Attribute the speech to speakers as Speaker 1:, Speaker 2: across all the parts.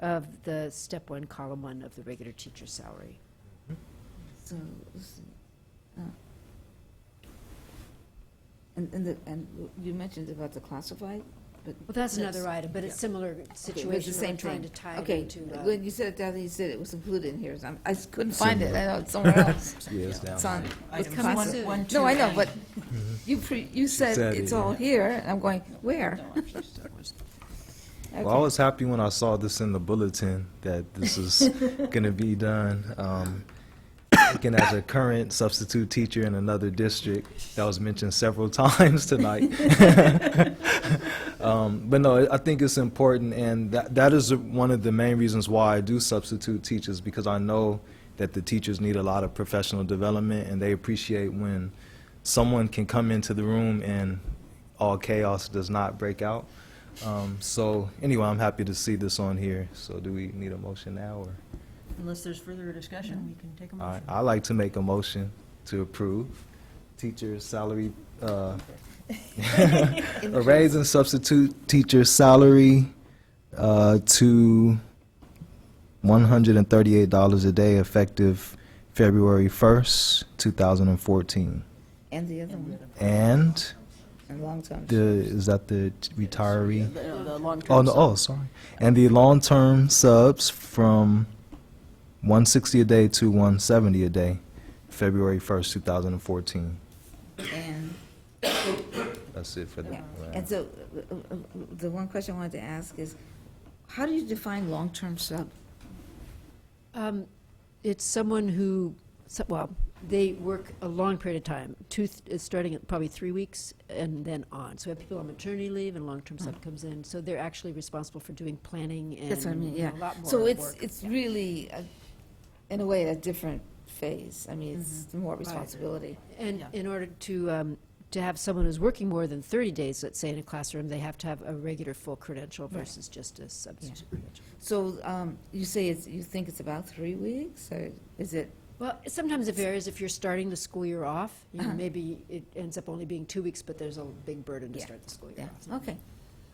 Speaker 1: of the step one, column one of the regular teacher salary.
Speaker 2: So, let's see. Uh, And, and the, and you mentioned about the classified, but.
Speaker 1: Well, that's another
Speaker 2: Okay,
Speaker 1: item, but it's similar
Speaker 2: but it's the
Speaker 1: situation, we're
Speaker 2: same
Speaker 1: trying to
Speaker 2: thing.
Speaker 1: tie
Speaker 2: Okay,
Speaker 1: it to, uh,
Speaker 2: When you said that, you said it was included in here, so I'm- I s- couldn't find it, I know it's somewhere else.
Speaker 3: Yeah, it's down
Speaker 2: It's on, it's
Speaker 1: Item
Speaker 2: classified.
Speaker 1: soon.
Speaker 4: one,
Speaker 2: No,
Speaker 4: two,
Speaker 2: I know,
Speaker 4: nine.
Speaker 2: but you, pre- you said
Speaker 3: Mm-hmm. said
Speaker 2: it's
Speaker 3: it.
Speaker 2: all here, and I'm going, where?
Speaker 4: No, actually, that was-
Speaker 3: Well, I was happy when I saw this in the bulletin that this is going to be done. Um, Speaking as a current substitute teacher in another district, that was mentioned several times tonight. Um, But no, I think it's important, and that, that is one of the main reasons why I do substitute teachers, because I know that the teachers need a lot of professional development, and they appreciate when someone can come into the room and all chaos does not break out. Um, So, anyway, I'm happy to see this on here. So do we need a motion now, or?
Speaker 4: Unless there's further discussion, we can take a
Speaker 3: All right,
Speaker 4: motion.
Speaker 3: I'd like to make a motion to approve teacher salary, uh, a raise and substitute teacher salary uh, to $138 a day effective February 1st, 2014.
Speaker 2: And the other one,
Speaker 3: And
Speaker 2: and long-term.
Speaker 3: the, is that the retiree?
Speaker 4: The- the long-term
Speaker 3: Oh, no,
Speaker 4: sub.
Speaker 3: oh, sorry. And the long-term subs from 160 a day to 170 a day, February 1st, 2014.
Speaker 2: And
Speaker 3: That's it for the
Speaker 2: Yeah, and so, uh, uh, uh, the one question I wanted to ask is, how do you define long-term sub?
Speaker 1: um, it's someone who, so- well, they work a long period of time, two, th- it's starting at probably three weeks and then on. So we have people on maternity leave and long-term sub comes in, so they're actually responsible for doing planning and
Speaker 2: Mm. That's what I mean,
Speaker 1: you know,
Speaker 2: yeah.
Speaker 1: a lot more
Speaker 2: So it's,
Speaker 1: work.
Speaker 2: it's really, a- in a way, a different phase. I mean, it's
Speaker 4: Mm-hmm.
Speaker 2: more responsibility.
Speaker 1: And
Speaker 4: Yeah.
Speaker 1: in order to, um, to have someone who's working more than 30 days, let's say, in a classroom, they have to have a regular full credential
Speaker 2: Right.
Speaker 1: versus just a substitute credential.
Speaker 2: So, um, you say it's, you think it's about three weeks, or is it,
Speaker 1: Well, sometimes it varies if you're starting the school year off, you know,
Speaker 2: Uh-huh.
Speaker 1: maybe it ends up only being two weeks, but there's a big burden to
Speaker 2: Yeah.
Speaker 1: start the school year
Speaker 2: yeah,
Speaker 1: off.
Speaker 2: okay.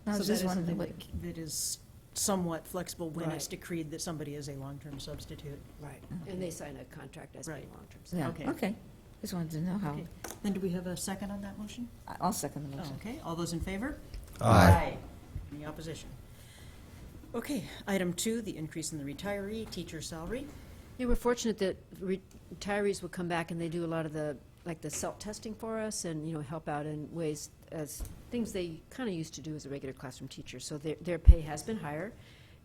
Speaker 2: I
Speaker 4: So
Speaker 2: was
Speaker 4: that
Speaker 2: just
Speaker 4: is
Speaker 2: wondering
Speaker 4: something
Speaker 2: what,
Speaker 4: that is somewhat flexible when it's
Speaker 1: Right.
Speaker 4: decreed that somebody is a long-term substitute.
Speaker 1: Right, and they sign a contract as being
Speaker 4: Right.
Speaker 1: long-term.
Speaker 2: yeah,
Speaker 4: Okay.
Speaker 2: okay. Just wanted to know how,
Speaker 4: Okay. Then do we have a second on that motion?
Speaker 2: I- I'll second the
Speaker 4: Oh,
Speaker 2: motion.
Speaker 4: Okay, all those in favor?
Speaker 3: Aye.
Speaker 4: Any opposition? Okay, item two, the increase in the retiree teacher salary.
Speaker 1: Yeah, we're fortunate that re- retirees will come back and they do a lot of the, like the self-testing for us and, you know, help out in ways as, things they kind of used to do as a regular classroom teacher. So their, their pay has been higher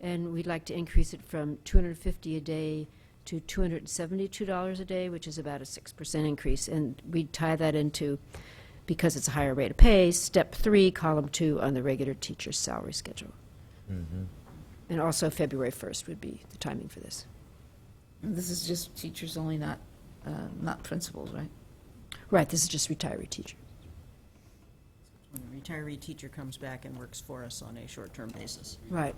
Speaker 1: and we'd like to increase it from 250 a day to $272 a day, which is about a 6% increase. And we tie that into, because it's a higher rate of pay, step three, column two on the regular teacher's salary schedule.
Speaker 3: Mm-hmm.
Speaker 1: And also February 1st would be the timing for this.
Speaker 2: And This is just teachers only, not, uh, not principals, right?
Speaker 1: Right, this is just retiree teacher.
Speaker 4: When a retiree teacher comes back and works for us on a short-term basis.
Speaker 1: Right.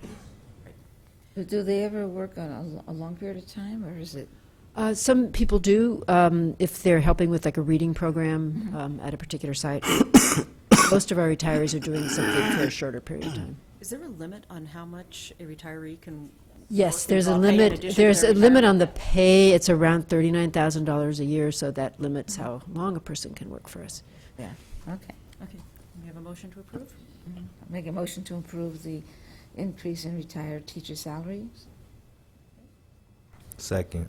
Speaker 2: Do- Do they ever work on a lo- a long period of time, or is it?
Speaker 1: Uh, some people do, um, if they're helping with like a reading program um, at a particular site. Most of our retirees are doing something for a shorter period of time.
Speaker 4: Is there a limit on how much a retiree can?
Speaker 1: Yes,
Speaker 4: work
Speaker 1: there's a
Speaker 4: while paid in
Speaker 1: limit,
Speaker 4: addition to
Speaker 1: there's
Speaker 4: their
Speaker 1: a limit
Speaker 4: retirement?
Speaker 1: on the pay. It's around $39,000 a year, so that limits how long a person can work for us.
Speaker 2: Yeah, okay.
Speaker 4: Okay, we have a motion to approve?
Speaker 2: Make a motion to approve the increase in retired teacher salaries?
Speaker 3: Second.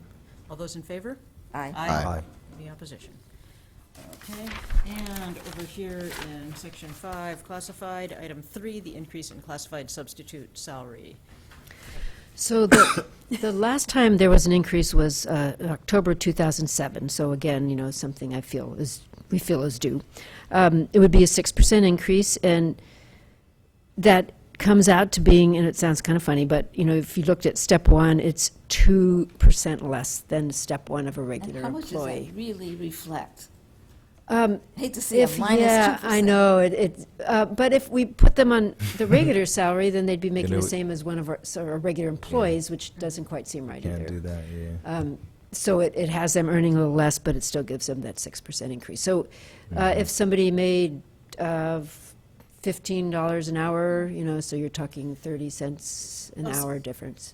Speaker 4: All those in favor?
Speaker 2: Aye.
Speaker 3: Aye.
Speaker 4: Any opposition? Okay, and over here in section five, classified, item three, the increase in classified substitute salary.
Speaker 1: So the, the last time there was an increase was uh, in October 2007. So again, you know, something I feel is, we feel is due. Um, It would be a 6% increase, and that comes out to being, and it sounds kind of funny, but, you know, if you looked at step one, it's 2% less than step one of a
Speaker 2: And
Speaker 1: regular
Speaker 2: how much does
Speaker 1: employee.
Speaker 2: that really reflect?
Speaker 1: Um,
Speaker 2: Hate to see a
Speaker 1: If, yeah,
Speaker 2: minus two
Speaker 1: I know, it, it, uh, but if we put them on the regular salary, then they'd be making
Speaker 3: it
Speaker 1: the
Speaker 3: would-
Speaker 1: same as one of our, so our regular employees, which doesn't quite seem right
Speaker 3: Can't do
Speaker 1: either.
Speaker 3: that, yeah.
Speaker 1: Um, So it, it has them earning a little less, but it still gives them that six percent increase. So, uh,
Speaker 3: Mm-hmm.
Speaker 1: if somebody made, uh, fifteen dollars an hour, you know, so you're talking thirty cents an
Speaker 4: Oh, s-
Speaker 1: hour difference.